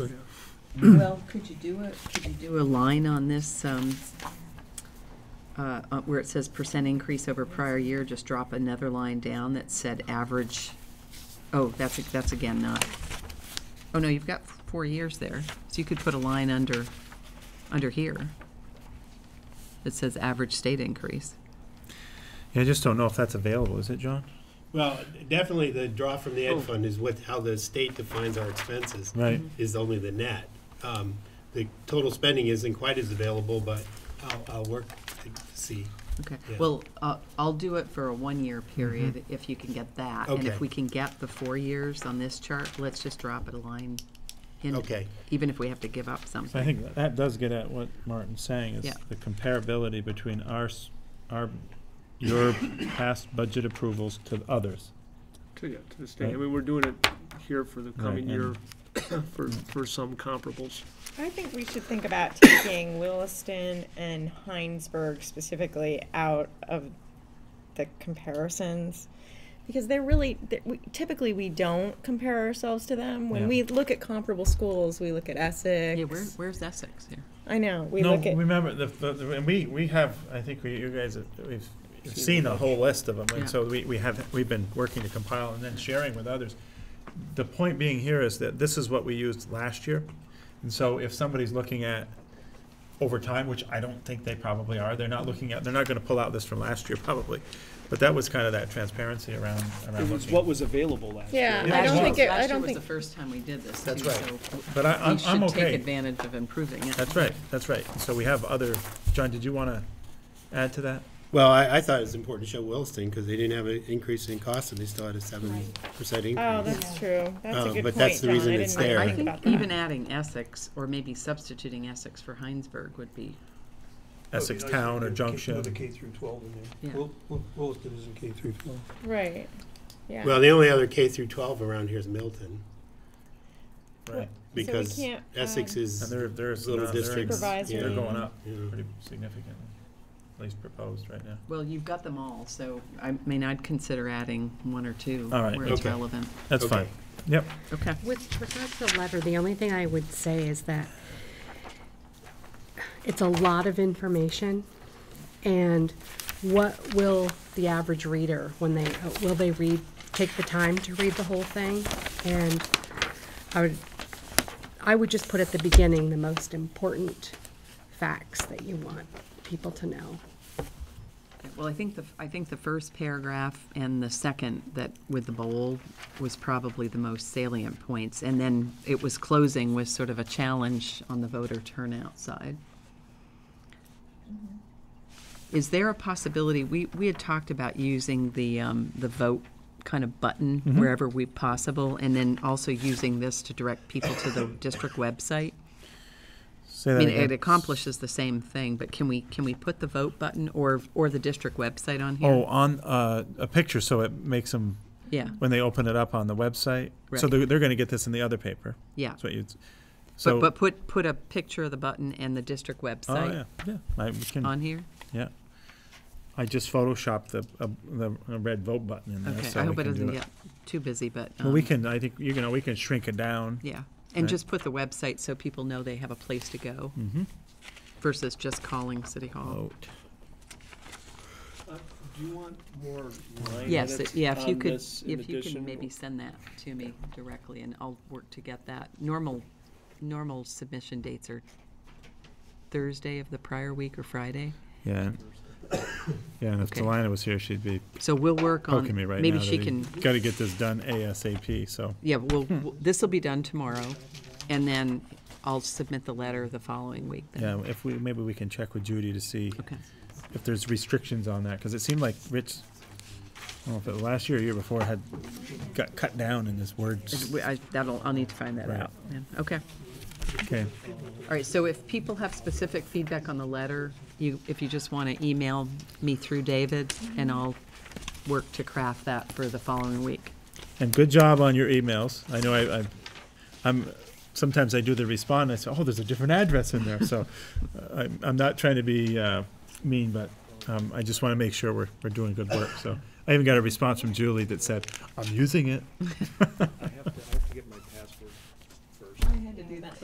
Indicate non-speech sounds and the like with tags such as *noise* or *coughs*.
Well, could you do a, could you do a line on this, um, uh, uh, where it says percent increase over prior year, just drop another line down that said average? Oh, that's, that's again not, oh no, you've got four years there, so you could put a line under, under here that says average state increase. Yeah, I just don't know if that's available, is it, John? Well, definitely the draw from Oh. the ed fund is what, how the state defines our expenses. Right. Mm-hmm. Is only the net. Um, The total spending isn't quite as available, but I'll, I'll work to see. Okay, Yeah. well, uh, I'll do it for a one-year period Mm-hmm. if you can get that. And Okay. if we can get the four years on this chart, let's just drop it a line in. Okay. Even if we have to give up So I something. think that does get at what Martin's saying, Yeah. is the comparability between our, s- our, your past budget approvals to others. To, yeah, to the state. I Right. mean, we're doing it here for the coming Right, year and- *coughs* for, for some comparables. I think we should think about taking Williston and Heinsberg specifically out of the comparisons. Because they're really, they're- we- typically, we don't compare ourselves to them. When Yeah. we look at comparable schools, we look at Essex. Yeah, where, where's Essex here? I know, we No, look at, remember, the, the- the, and we, we have, I think we, you guys, have- we've we've seen a whole list of them, Yeah. and so we, we have, we've been working to compile and then sharing with others. The point being here is that this is what we used last year, and so if somebody's looking at over time, which I don't think they probably are, they're not looking at, they're not gonna pull out this from last year probably, but that was kind of that transparency around, around It was looking. what was available last year. yeah, Yeah, I don't well- think, it- I Last year don't was the think, first time we did this, too, That's so right. But I, we I'm, I'm should take okay, advantage of improving it. that's right, that's right, so we have other, John, did you wanna add to that? Well, I, I thought it was important to show Williston because they didn't have an increase in cost and they still had a seven percent increase. oh, that's true. That's a Um, good but point, that's the John. I reason didn't it's really there. I think think about that. even adding Essex, or maybe substituting Essex for Heinsberg would be, Essex Town or Junction. Another K through twelve in Yeah. there. Wil- Wil- Williston is a K through twelve. Right, yeah. Well, the only other K through twelve around here is Milton Right. we because can't, Essex um, is, And there, there's, Little not- there districts, is- they're Supervisory. going up you know, pretty significantly, at least proposed right now. well, you've got them all, so I mean, I'd consider adding one or two All right, where it's okay. relevant. That's Okay. fine. Yep, Okay. With regards to the letter, the only thing I would say is that it's a lot of information, and what will the average reader, when they, will they read, take the time to read the whole thing? And I would, I would just put at the beginning the most important facts that you want people to know. Well, I think the, I think the first paragraph and the second that with the bold was probably the most salient points. And then it was closing with sort of a challenge on the voter turnout side. Is there a possibility, we, we had talked about using the, um, the vote kind of button wherever we possible, and then also using this to direct people to the district website? say I that mean, it again. accomplishes the same thing, but can we, can we put the vote button or, or the district website on here? Oh, on, uh, a picture, so it makes them, Yeah, when they open it up on the website, so Right. they're, they're gonna get this in the other paper. yeah. That's what you'd, s- But, so. but put, put a picture of the button and the district Oh, yeah, website yeah, I we can, on here? yeah. I just photoshopped the, uh, the uh, red vote button in there, Okay, so I we hope it can do doesn't it. get too busy, but, Well, we um, can, I think, you know, we can shrink it down. yeah. And Right. just put the website so people know they have a place to go versus just calling City Hall. Mm-hmm. Vote. Uh, Do you want more line Yes, it- edits yeah, if you on could, this um, in if you can addition? maybe send that to me directly and I'll work to get that. Normal, normal submission dates are Thursday of the prior week or Friday. Yeah. *coughs* Yeah, and if Okay. Delina was here, she'd be So we'll work on, poking me right now. Um, maybe she can Got to get this done ASAP, so. Yeah, well, Hmm. this will be done tomorrow, and then I'll submit the letter the following week then. Yeah, if we, maybe we can check with Judy to see Okay, if there's restrictions on that, because it seemed like Rich, I don't know if it was last year or year before, had, got cut down in this word. Is- we- I- that'll, I'll need to find that Right. out. yeah. Okay, Okay, all right, so if people have specific feedback on the letter, you, if you just want to email me through David, and I'll work to craft that for the following week. and good job on your emails. I know I, I, I'm, sometimes I do the respond, and I say, oh, there's a different address in there, so *laughs* uh, I'm, I'm not trying to be uh, mean, but um, I just want to make sure we're, we're doing good work, so. I even got a response from Julie that said, I'm using it.